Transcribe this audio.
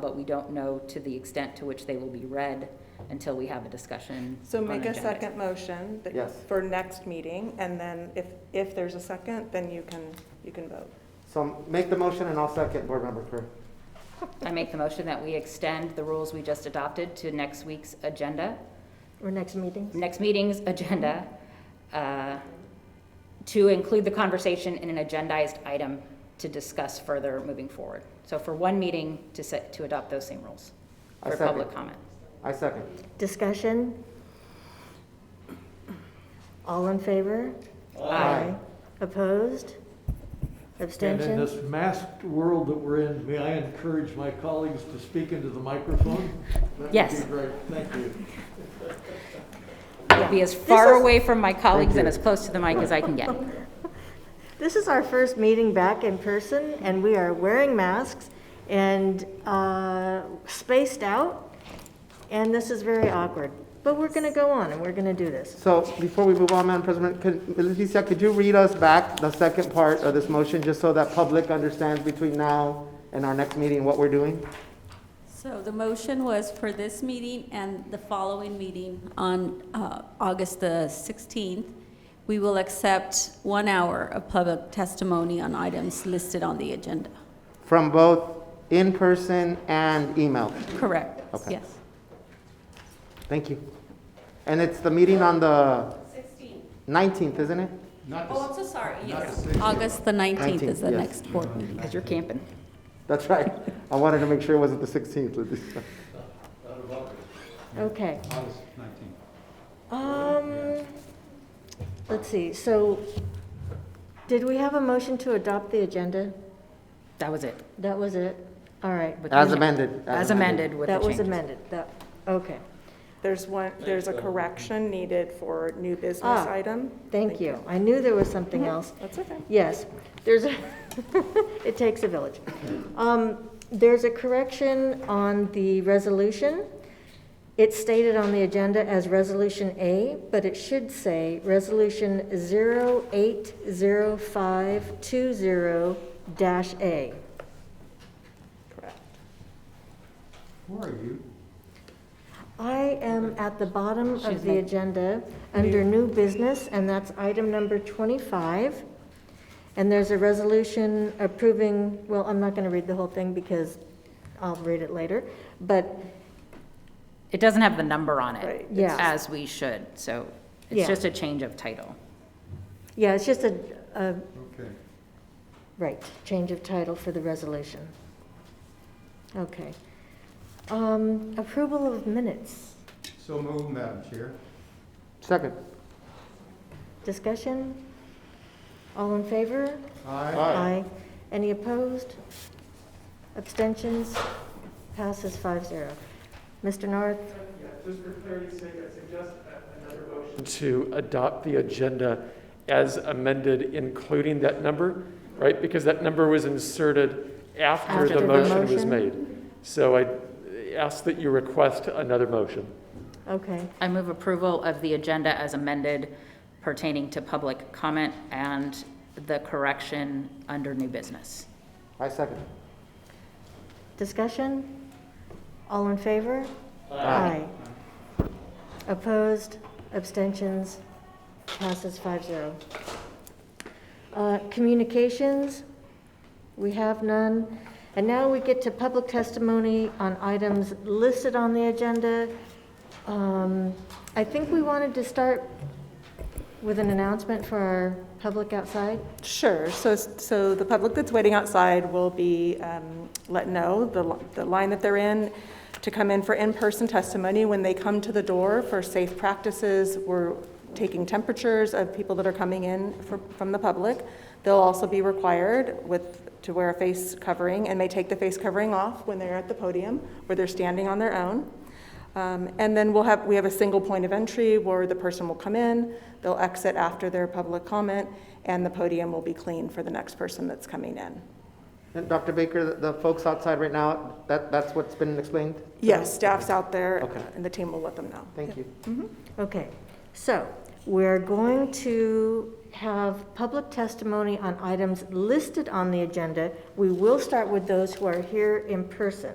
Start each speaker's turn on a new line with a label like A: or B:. A: but we don't know to the extent to which they will be read until we have a discussion.
B: So
A: on
B: make a
A: agendas.
B: second motion that-
C: Yes.
B: for next meeting, and then if, if there's a second, then you can, you can vote.
C: So make the motion and I'll second, Board Member Crew.
A: I make the motion that we extend the rules we just adopted to next week's agenda,
D: Or next meeting?
A: next meeting's agenda, uh, to include the conversation in an agendized item to discuss further moving forward. So for one meeting to set, to adopt those same rules
C: I
A: for
C: second.
A: public comment.
C: I second.
D: Discussion? All in favor?
C: Aye.
D: Opposed?
E: And in
D: Abstentions?
E: this masked world that we're in, may I encourage my colleagues to speak into the microphone?
A: Yes.
E: That would be great, thank you.
A: Be as far
D: is-
A: away from my colleagues and
C: you.
A: as close to the mic as I can get.
D: This is our first meeting back in person, and we are wearing masks and uh, spaced out, and this is very awkward. But we're going to go on, and we're going to do this.
C: So before we move on, Madam President, could, Leticia, could you read us back the second part of this motion, just so that public understands between now and our next meeting what we're doing?
F: So the motion was for this meeting and the following meeting on uh, August the 16th, we will accept one hour of public testimony on items listed on the agenda.
C: From both in-person and email.
F: Correct,
C: Okay.
F: yes.
C: Thank you. And it's the meeting on the 19th, isn't it?
F: Oh, I'm so sorry, yes. August the 19th is the
C: 19th, yes.
F: next board meeting.
A: Because you're camping.
C: That's right. I wanted to make sure it wasn't the 16th, Leticia.
D: Okay. Um, let's see, so, did we have a motion to adopt the agenda?
A: That was it.
D: That was it? All right,
A: With
C: As
A: the-
C: amended.
A: As amended with the
D: that was
A: changes.
D: amended, that, okay,
B: There's one, there's a correction needed for new business
D: Ah,
B: item.
D: thank you. Mm-hmm. I knew there was something else.
B: That's okay.
D: Yes, there's, a. it takes a village. Um, There's a correction on the resolution. It's stated on the agenda as Resolution A, but it should say Resolution 080520-A.
B: Correct.
E: Where are you?
D: I am at the bottom
A: She's
D: of the
A: like-
D: agenda, under new business, and that's item number 25. And there's a resolution approving, well, I'm not going to read the whole thing because I'll read it later, but
A: It doesn't have the number on
B: Right.
A: it,
D: Yeah.
A: as we should, so
D: Yeah.
A: it's just a change of title.
D: yeah, it's just a, a,
E: Okay.
D: right, change of title for the resolution. Okay. Um, Approval of minutes,
G: So moved, Madam Chair.
C: Second.
D: discussion? All in favor?
G: Aye.
D: Aye. Any opposed? Abstentions? Passes 5-0. Mr. North?
H: Just for clarity's sake, I suggest a- another motion. To adopt the agenda as amended, including that number, right? Because that number was inserted after
D: After
H: the
D: the
H: motion was
D: motion.
H: made. So I ask that you request another motion.
D: Okay,
A: I move approval of the agenda as amended pertaining to public comment and the correction under new business.
C: I second.
D: discussion? All in favor? Aye. Opposed? Abstentions? Passes 5-0. Uh, Communications? We have none. And now we get to public testimony on items listed on the agenda. Um, I think we wanted to start with an announcement for our public outside.
B: Sure, so, so the public that's waiting outside will be um, let know the, li- the line that they're in to come in for in-person testimony. When they come to the door for safe practices, we're taking temperatures of people that are coming in fr- from the public. They'll also be required with, to wear a face covering and may take the face covering off when they're at the podium or they're standing on their own. Um, And then we'll have, we have a single point of entry where the person will come in, they'll exit after their public comment, and the podium will be clean for the next person that's coming in.
C: And Dr. Baker, the- the folks outside right now, that, that's what's been explained?
B: Yes, staff's out there,
C: Okay.
B: and the team will let them know.
C: Thank you.
D: Okay, so we're going to have public testimony on items listed on the agenda. We will start with those who are here in person.